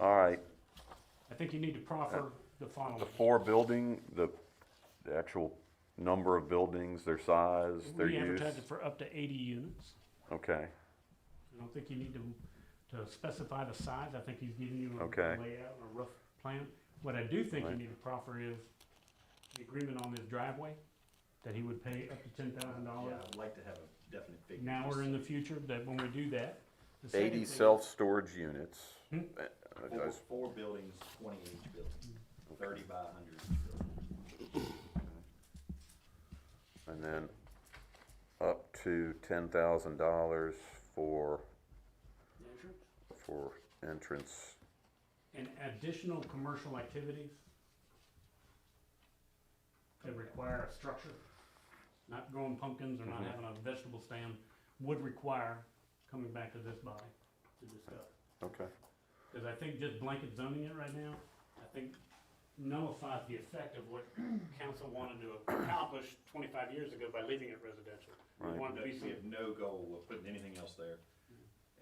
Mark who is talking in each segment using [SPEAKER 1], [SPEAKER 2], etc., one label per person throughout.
[SPEAKER 1] All right,
[SPEAKER 2] I think you need to proffer the final.
[SPEAKER 1] Uh, the four building, the, the actual number of buildings, their size, their
[SPEAKER 2] We
[SPEAKER 1] use?
[SPEAKER 2] advertised it for up to eighty units.
[SPEAKER 1] Okay,
[SPEAKER 2] I don't think you need to, to specify the size. I think he's giving you a
[SPEAKER 1] Okay.
[SPEAKER 2] layout, and a rough plan. What I do think you
[SPEAKER 1] Right.
[SPEAKER 2] need to proffer is the agreement on this driveway, that he would pay up to ten thousand
[SPEAKER 3] Yeah,
[SPEAKER 2] dollars
[SPEAKER 3] I'd like to have a definite figure.
[SPEAKER 2] now or in the future, that when we do that. the second
[SPEAKER 1] eighty
[SPEAKER 2] thing-
[SPEAKER 1] self-storage units.
[SPEAKER 2] Hmm?
[SPEAKER 1] Uh, I
[SPEAKER 3] Four,
[SPEAKER 1] was-
[SPEAKER 3] four buildings, twenty each building, thirty by hundred each building.
[SPEAKER 1] And then up to ten thousand dollars for, for entrance.
[SPEAKER 2] And additional commercial activities that require a structure, not growing pumpkins or not
[SPEAKER 1] Mhm.
[SPEAKER 2] having a vegetable stand, would require coming back to this body to discuss.
[SPEAKER 1] Okay.
[SPEAKER 2] Because I think just blanket zoning it right now, I think nullifies the effect of what council wanted to accomplish twenty-five years ago by leaving it residential. We
[SPEAKER 1] Right.
[SPEAKER 2] wanted to be,
[SPEAKER 3] We have no goal of putting anything else there.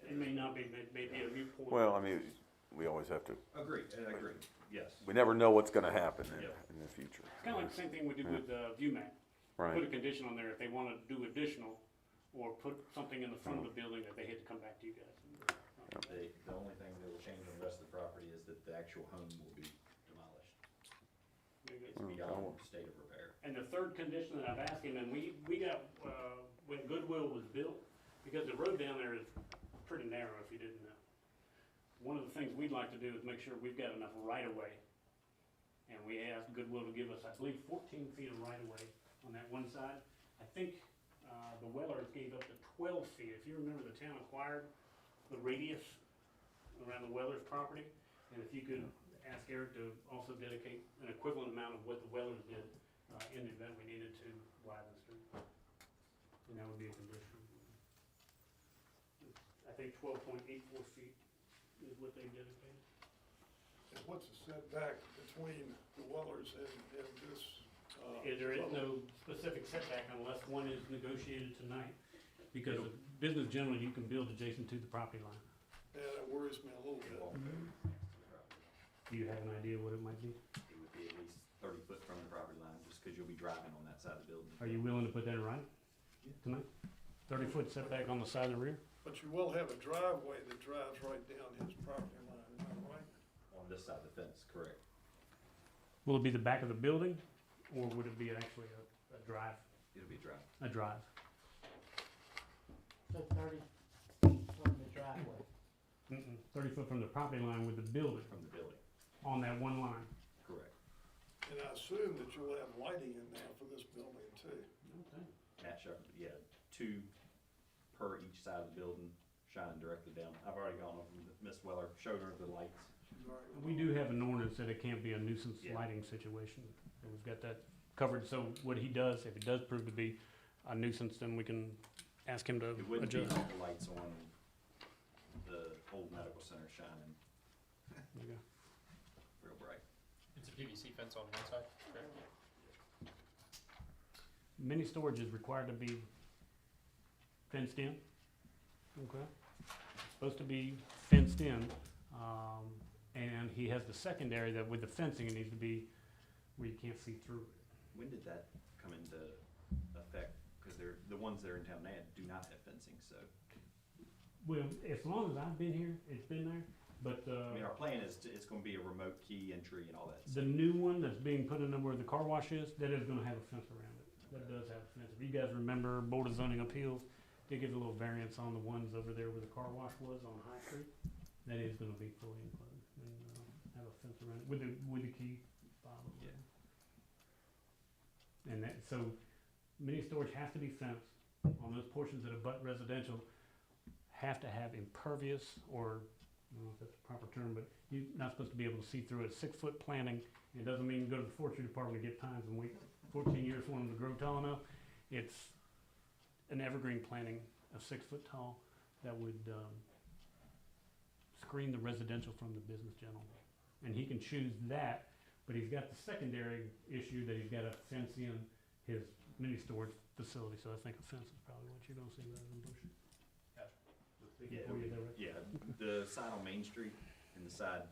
[SPEAKER 2] it may not be, may- may be a moot point.
[SPEAKER 1] Well, I mean, we always have to,
[SPEAKER 3] Agree, and I agree, yes.
[SPEAKER 1] we never know what's gonna happen in,
[SPEAKER 3] Yeah.
[SPEAKER 1] in the future.
[SPEAKER 2] It's kind of like the same thing we did with uh, the view map. Put a
[SPEAKER 1] Right,
[SPEAKER 2] condition on there if they want to do additional, or put something in the front of the building that they had to come back to you guys.
[SPEAKER 3] The, the only thing that will change on the rest of the property is that the actual home will be demolished.
[SPEAKER 2] Very good.
[SPEAKER 3] It's beyond state of repair.
[SPEAKER 2] And the third condition that I've asked him, and we, we got, uh, when Goodwill was built, because the road down there is pretty narrow, if you didn't know. One of the things we'd like to do is make sure we've got enough right of way. And we asked Goodwill to give us, I believe, fourteen feet of right of way on that one side. I think, uh, the Wellers gave up to twelve feet. If you remember, the town acquired the radius around the Wellers property. And if you could ask Eric to also dedicate an equivalent amount of what the Wellers did uh, in the event we needed to widen the street. And that would be a condition. I think twelve point eight four feet is what they dedicated.
[SPEAKER 4] And what's the setback between the Wellers and, and this? uh,
[SPEAKER 2] Is There is no specific setback unless one is negotiated tonight, because of business generally, you can build adjacent to the property line.
[SPEAKER 4] Yeah, that worries me a little
[SPEAKER 3] It
[SPEAKER 4] bit.
[SPEAKER 3] won't go next to the property.
[SPEAKER 2] Do you have an idea what it might be?
[SPEAKER 3] It would be at least thirty foot from the property line, just because you'll be driving on that side of the building.
[SPEAKER 2] Are you willing to put that in writing
[SPEAKER 3] Yeah.
[SPEAKER 2] tonight? Thirty foot setback on the side of the rear?
[SPEAKER 4] But you will have a driveway that drives right down his property line, am I right?
[SPEAKER 3] On this side of the fence, correct.
[SPEAKER 2] Will it be the back of the building, or would it be actually a, a drive,
[SPEAKER 3] It'll be driving.
[SPEAKER 2] a drive?
[SPEAKER 5] So thirty from the driveway.
[SPEAKER 2] Mm-mm, thirty foot from the property line with the building
[SPEAKER 3] from the building,
[SPEAKER 2] on that one line.
[SPEAKER 3] correct.
[SPEAKER 4] And I assume that you'll have lighting in there for this building too.
[SPEAKER 3] Matt Shepherd, yeah, two per each side of the building, shining directly down. I've already gone over with Miss Weller, showed her the lights.
[SPEAKER 4] Right.
[SPEAKER 2] We do have an ordinance that it can't be a nuisance
[SPEAKER 3] Yeah.
[SPEAKER 2] lighting situation, and we've got that covered, so what he does, if it does prove to be a nuisance, then we can ask him to
[SPEAKER 3] It wouldn't be
[SPEAKER 2] adjust.
[SPEAKER 3] the lights on the old medical center shining
[SPEAKER 2] There you go.
[SPEAKER 3] real bright.
[SPEAKER 6] It's a PVC fence on one side, correct?
[SPEAKER 2] Mini storage is required to be fenced in, okay? Supposed to be fenced in, um, and he has the secondary that with the fencing, it needs to be where you can't see through it.
[SPEAKER 3] When did that come into effect? Because they're, the ones that are in town now do not have fencing, so.
[SPEAKER 2] Well, as long as I've been here, it's been there, but,
[SPEAKER 3] I
[SPEAKER 2] uh,
[SPEAKER 3] mean, our plan is to, it's gonna be a remote key entry and all that.
[SPEAKER 2] The new one that's being put in where the car wash is, that is gonna have a fence around it. That does have a fence. If you guys remember, Board of Zoning Appeals, they give a little variance on the ones over there where the car wash was on High Street. That is gonna be fully enclosed and, uh, have a fence around it with the, with the key fob.
[SPEAKER 3] Yeah.
[SPEAKER 2] And that, so mini storage has to be fenced on those portions that abut residential, have to have impervious or, I don't know if that's the proper term, but you're not supposed to be able to see through it. Six-foot planting it doesn't mean go to the forestry department and get pines and wait fourteen years for them to grow tall enough. It's an evergreen planting of six foot tall that would, um, screen the residential from the business general. And he can choose that, but he's got the secondary issue that he's gotta fence in his mini storage facility, so I think a fence is probably what you're gonna see rather than bushes.
[SPEAKER 3] Yeah,
[SPEAKER 2] Oh, yeah, they're right.
[SPEAKER 3] Yeah, the side on Main Street and the side